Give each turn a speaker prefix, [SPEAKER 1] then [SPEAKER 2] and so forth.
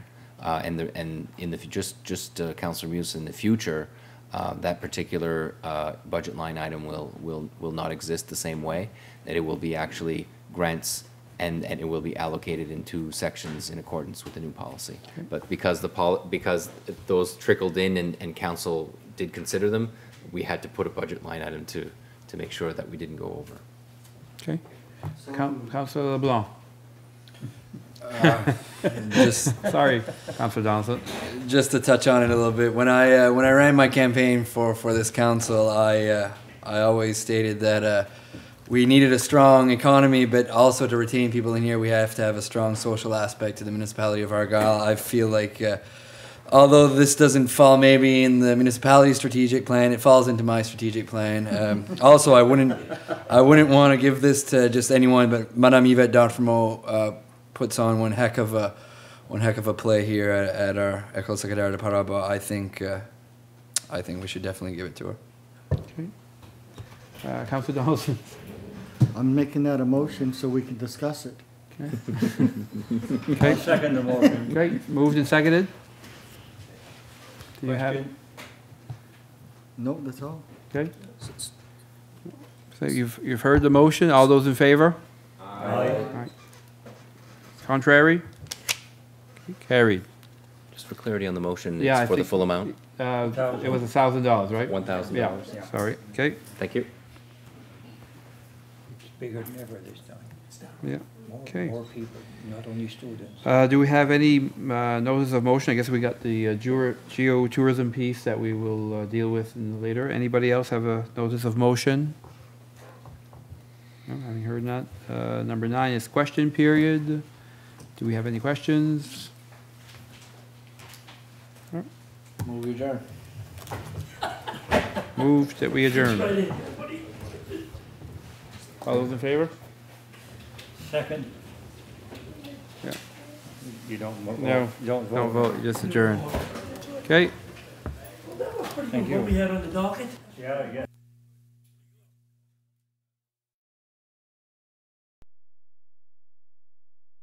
[SPEAKER 1] uh, and the, and in the, fu- just, just uh, Counselor Muse, in the future, uh, that particular uh, budget line item will, will, will not exist the same way, that it will be actually grants and, and it will be allocated in two sections in accordance with the new policy. But because the pol, because those trickled in and, and council did consider them, we had to put a budget line item to, to make sure that we didn't go over.
[SPEAKER 2] Okay. Coun- Councilor LeBlanc,
[SPEAKER 3] just
[SPEAKER 2] sorry, Councilor Donaldson.
[SPEAKER 3] just to touch on it a little bit, when I uh, when I ran my campaign for for this council, I uh, I always stated that uh, we needed a strong economy, but also to retain people in here, we have to have a strong social aspect to the municipality of Argyle. I feel like. Uh, Although this doesn't fall maybe in the municipality strategic plan, it falls into my strategic plan. Um, also, I wouldn't, I wouldn't want to give this to just anyone, but Madame Yvette Darfremo, uh puts on one heck of a, one heck of a play here at, at our Ecole Secundaire de Paraba. I think, uh, I think we should definitely give it to her.
[SPEAKER 2] Uh, Councilor Donaldson.
[SPEAKER 4] I'm making that a motion so we can discuss it.
[SPEAKER 2] Okay,
[SPEAKER 5] Second the motion.
[SPEAKER 2] great, moved and seconded. Do you have,
[SPEAKER 5] Question?
[SPEAKER 4] No, that's all.
[SPEAKER 2] okay? So you've, you've heard the motion, all those in favor? Contrary? Okay, Carried.
[SPEAKER 1] Just for clarity on the motion,
[SPEAKER 2] Yeah, I
[SPEAKER 1] it's for the
[SPEAKER 2] think-
[SPEAKER 1] full amount,
[SPEAKER 2] Uh, It was a thousand dollars, right?
[SPEAKER 1] one thousand
[SPEAKER 2] Yeah,
[SPEAKER 1] dollars.
[SPEAKER 2] sorry, okay,
[SPEAKER 1] Thank you.
[SPEAKER 5] It's bigger than ever this time.
[SPEAKER 2] yeah.
[SPEAKER 5] More,
[SPEAKER 2] Okay.
[SPEAKER 5] more people, not only students.
[SPEAKER 2] Uh, Do we have any uh, notice of motion? I guess we got the uh, geo- geotourism piece that we will uh, deal with in later. Anybody else have a notice of motion? No, Having heard that, uh, number nine is question period. Do we have any questions?
[SPEAKER 3] Move your jar.
[SPEAKER 2] Moved that we adjourn. All those in favor?
[SPEAKER 5] Second?
[SPEAKER 2] Yeah.
[SPEAKER 5] You don't vote?
[SPEAKER 2] No,
[SPEAKER 5] You don't
[SPEAKER 2] Don't
[SPEAKER 5] vote?
[SPEAKER 2] vote, just adjourn. Okay.
[SPEAKER 5] Thank you. What we had on the docket? Yeah, yeah.